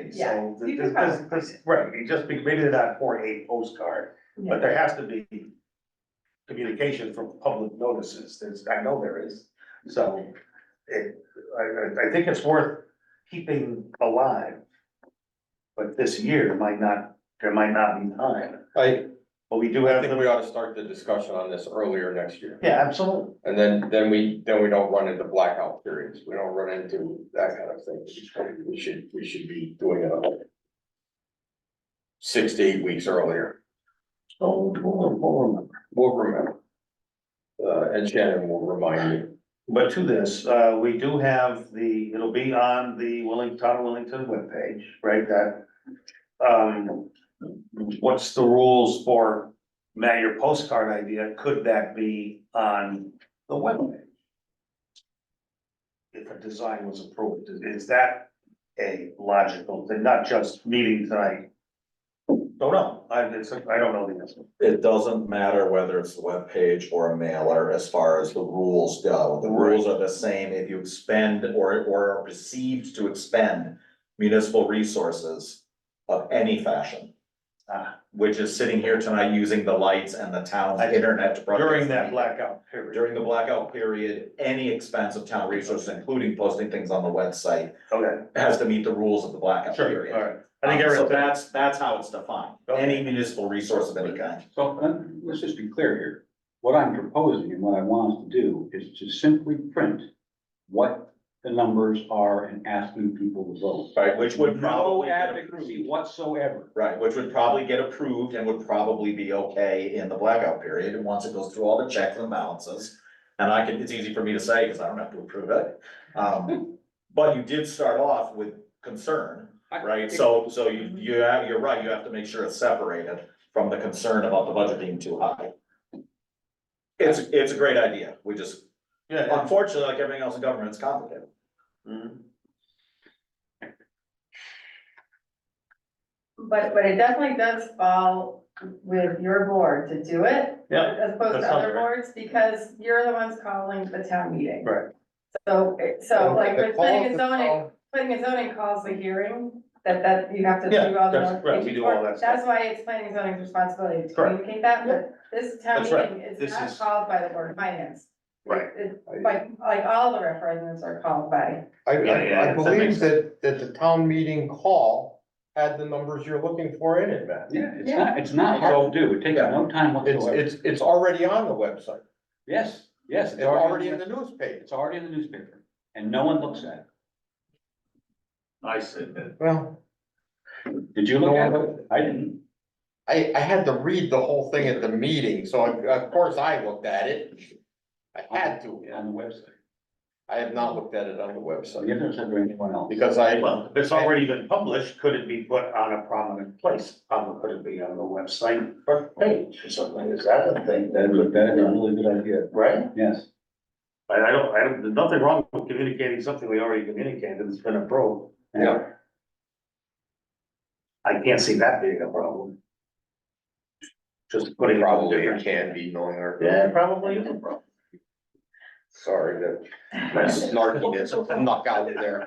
already, Yeah, so. you this- could this- probably this- Right, it just, be- maybe they're not four eight postcard, Yeah. but there has to be communication from public notices, there's, I know there is. So it, I, I, I think it's worth keeping alive. But this year might not, there might not be time, I, but we do I have, think the- we ought to start the discussion on this earlier next year. yeah, absolutely. And then, then we, then we don't run into blackout periods. We don't run into that kind of thing. We should, we should be doing it all six to eight weeks earlier. So we'll- we'll remember. We'll remember. Uh, and Shannon will remind you. But to this, uh, we do have the, it'll be on the Willing, Town of Willington webpage, right, that. Um, what's the rules for, Matt, your postcard idea, could that be on the webpage? If a design was approved, is- is that a logical, thing? not just meeting tonight? Don't know, I, it's, I don't know the answer, It doesn't matter whether it's the webpage or a mailer as far as the rules go. The rules are the same if you expend or, or are perceived to expend municipal resources of any fashion, ah, which is sitting here tonight using the lights and the town's internet to. broadcast during that the meeting. blackout period. During the blackout period, any expense of town resources, including posting things on the website, Okay, has to meet the rules of the blackout sure, period. all right, I think Um, everything's. So that's, that's how it's defined, Okay. any municipal resource of any kind. So uh, let's just be clear here. What I'm proposing and what I want us to do is to simply print what the numbers are and asking people to vote. Right, which would No probably get approved. advocacy whatsoever. Right, which would probably get approved and would probably be okay in the blackout period, and once it goes through all the checks and balances. And I can, it's easy for me to say, because I don't have to approve it, um, but you did start off with concern, right? So, so Mm-hmm. you, you have, you're right, you have to make sure it's separated from the concern about the budget being too high. It's, it's a great idea, we just, Yeah, yeah. unfortunately, like everything else in government, it's complicated. Mhm. But, but it definitely does fall with your board to do it. Yeah, As opposed that to sounds other right. boards, because you're the ones calling the town meeting. Right. So, it- so like The with call- planning and the zoning, call- planning and zoning calls the hearing, that, that you have to Yeah, do all the. that's- right, we do all that stuff. That's why it's planning and zoning's responsibility to Correct. communicate that, but this town That's right. meeting is This not is- called by the board of finance. Right. It- Like, like all the referendums are called by, I, Yeah, yeah, I, I that makes believe that, that the town meeting call had the numbers you're looking for in it, Matt. Yeah, it's not, it's not hard to do. It takes no time It's, whatsoever. it's, it's already on the website. Yes, yes. It's already in the newspaper. It's already in the newspaper and no one looks at I said that. Well, it. Did you no look at it? one- I didn't. I, I had to read the whole thing at the meeting, so of, of course I looked at it. I had to. On the website. I have not looked at it on the So you website haven't said to anyone else. because I, Well, if it's already been published, could it be put on a prominent place? Um, could it be on the website front page or something? Is that a thing? That would, that is a really good idea. Right? Yes. I, I don't, I don't, there's nothing wrong with communicating something we already communicated, it's been approved. Yeah. I can't see that being a problem. Just putting. it on probably it different- can be knowing our. Yeah, probably is a problem. Sorry, that that snarkiness snuck out there.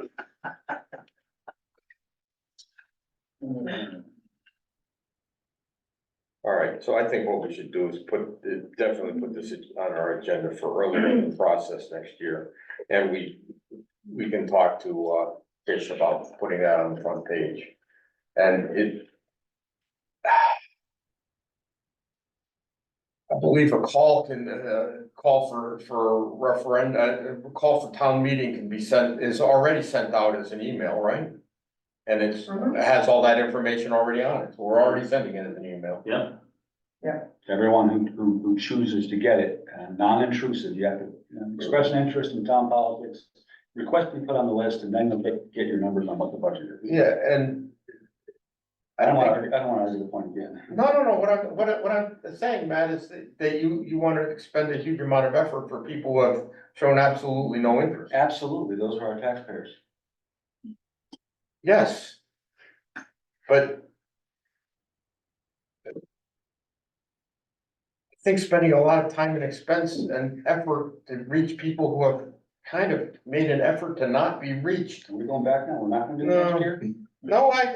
Hmm. All right, so I think what we should do is put, definitely put this on our agenda for earlier in the process next year. And we, we can talk to, uh, Fish about putting that on the front page. And it. I believe a call can, uh, call for, for referendum, uh, call for town meeting can be sent, is already sent out as an email, right? And it's, Mhm. it has all that information already on it, so we're already sending it as an email. Yeah. To Everyone who, who, who chooses to get it, uh, non-intrusive, you have to you know, express an interest in town politics. Request to be put on the list and then you'll get, get your numbers on what the budget is. Yeah, and. I don't wanna, argue- I don't wanna argue the point again. No, no, no, what I'm, what I, what I'm saying, Matt, is that, that you, you wanna expend a huge amount of effort for people who have shown absolutely no interest. Absolutely, those are our taxpayers. Yes. But. I think spending a lot of time and expense and effort to reach people who have kind of made an effort to not be reached. Are we going back now? We're not gonna do it No. next year? No, I,